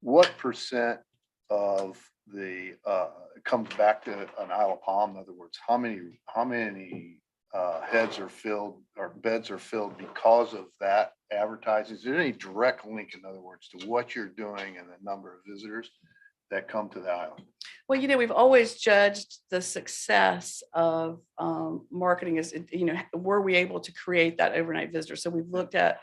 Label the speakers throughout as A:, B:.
A: what percent of the, uh, comes back to an Isle of Palm? In other words, how many, how many, uh, heads are filled or beds are filled because of that advertising? Is there any direct link, in other words, to what you're doing and the number of visitors that come to the island?
B: Well, you know, we've always judged the success of um, marketing as, you know, were we able to create that overnight visitor? So we've looked at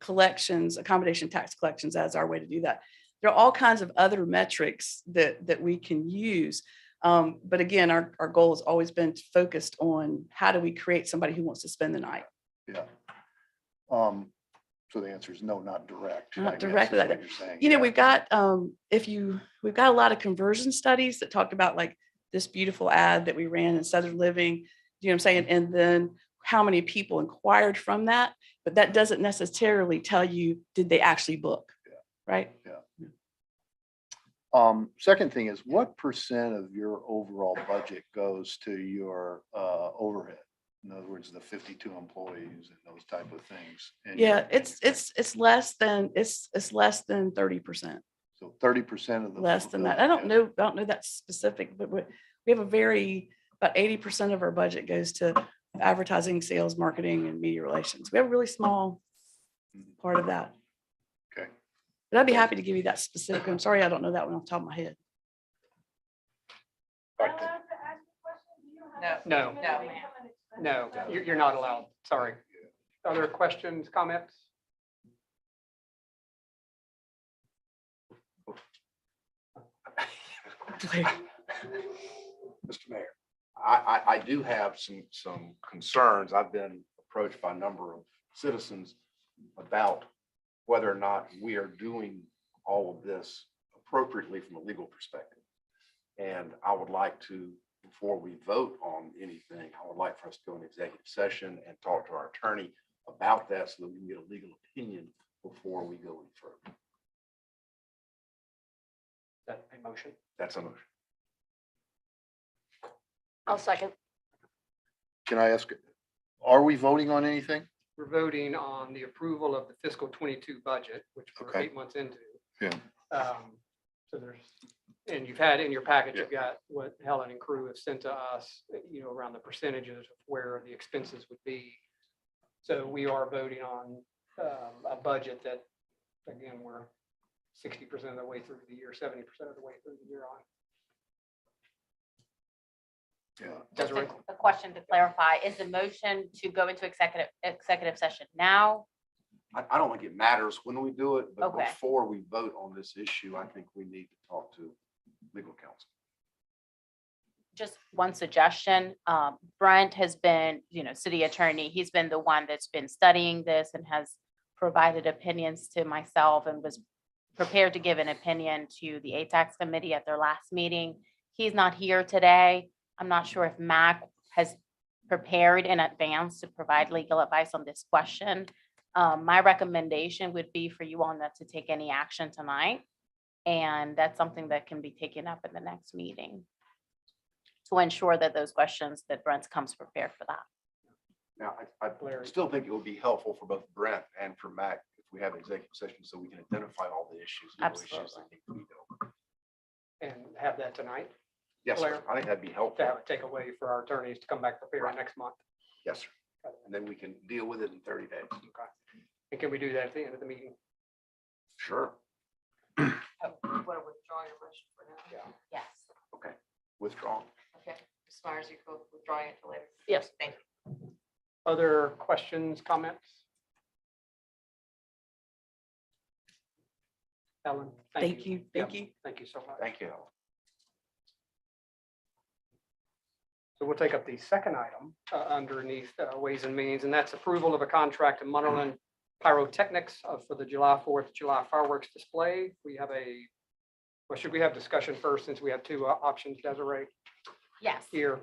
B: collections, accommodation tax collections as our way to do that. There are all kinds of other metrics that, that we can use. Um, But again, our, our goal has always been focused on how do we create somebody who wants to spend the night?
A: Yeah. Um, so the answer is no, not direct. I
B: Not
A: guess is
B: directly like
A: what
B: that.
A: you're saying.
B: You know,
A: Yeah.
B: we've got, um, if you, we've got a lot of conversion studies that talked about like this beautiful ad that we ran in Southern Living, you know what I'm saying? And then how many people inquired from that, but that doesn't necessarily tell you, did they actually book?
A: Yeah.
B: Right?
A: Um, second thing is what percent of your overall budget goes to your, uh, overhead? In other words, the fifty-two employees and those type of things. and your-
B: Yeah, it's, it's, it's less than, it's, it's less than thirty percent,
A: So thirty percent of the.
B: less than that. I don't know, I don't know that specific, but we, we have a very, about eighty percent of our budget goes to advertising, sales, marketing, and media relations. We have a really small part of that.
A: Okay.
B: But I'd be happy to give you that specific. I'm sorry, I don't know that one off the top of my head.
A: Right, the-
C: No.
D: No.
C: No, ma'am.
D: No, you're, you're not allowed. Sorry. Other questions, comments?
E: Mr. Mayor, I, I, I do have some, some concerns. I've been approached by a number of citizens about whether or not we are doing all of this appropriately from a legal perspective. And I would like to, before we vote on anything, I would like for us to go in executive session and talk to our attorney about that so that we can get a legal opinion before we go any further.
D: That a motion?
E: That's a motion.
F: I'll second.
A: Can I ask, are we voting on anything?
D: We're voting on the approval of the fiscal twenty-two budget, which we're
A: Okay.
D: eight months into.
A: Yeah.
D: Um, So there's, and you've had in your package, you've got what Helen and crew have sent to us, you know, around the percentages of where the expenses would be. So we are voting on um, a budget that, again, we're sixty percent of the way through the year, seventy percent of the way through the year on.
A: Yeah.
F: Just a
D: Desiree?
F: a question to clarify, is the motion to go into executive, executive session now?
E: I, I don't think it matters when we do it, but
F: Okay.
E: before we vote on this issue, I think we need to talk to legal counsel.
F: Just one suggestion, um, Brent has been, you know, city attorney, he's been the one that's been studying this and has provided opinions to myself and was prepared to give an opinion to the ATAX committee at their last meeting. He's not here today. I'm not sure if Mac has prepared in advance to provide legal advice on this question. Um, my recommendation would be for you all not to take any action tonight. And that's something that can be taken up at the next meeting to ensure that those questions that Brent comes prepared for that.
E: Now, I, I
D: Larry.
E: still think it would be helpful for both Brent and for Mac if we have an executive session so we can identify all the issues. legal issues that need to be dealt with.
D: and have that tonight
E: Yes, sir.
D: Blair.
E: I think that'd be
D: to
E: helpful.
D: have it take away for our attorneys to come back prepared
E: Right.
D: next month.
E: Yes, sir. And then we can deal with it in thirty days.
D: Okay. And can we do that at the end of the meeting?
E: Sure.
C: Want to withdraw your motion for now?
D: Yeah.
F: Yes.
E: Withdraw.
C: Okay, Ms. Myers, you go withdraw it until later.
F: Yes.
C: Thank you.
D: Other questions, comments? Ellen?
B: Thank you,
D: Yeah,
B: thank you.
D: Thank you so much.
E: Thank you. Helen.
D: So we'll take up the second item uh, underneath uh, Ways and Means, and that's approval of a contract to Munderland Pyrotechnics uh, for the July 4th, July fireworks display. We have a, well, should we have discussion first since we have two uh, options, Desiree,
F: Yes.
D: here?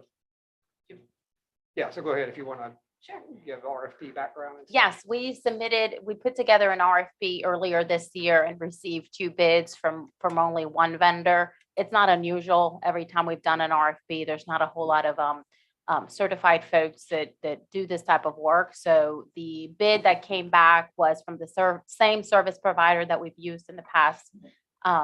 D: Yeah, so go ahead if you want to
F: Sure.
D: give RFP background. and stuff.
F: Yes, we submitted, we put together an RFP earlier this year and received two bids from, from only one vendor. It's not unusual. Every time we've done an RFP, there's not a whole lot of um, um, certified folks that, that do this type of work. So the bid that came back was from the ser- same service provider that we've used in the past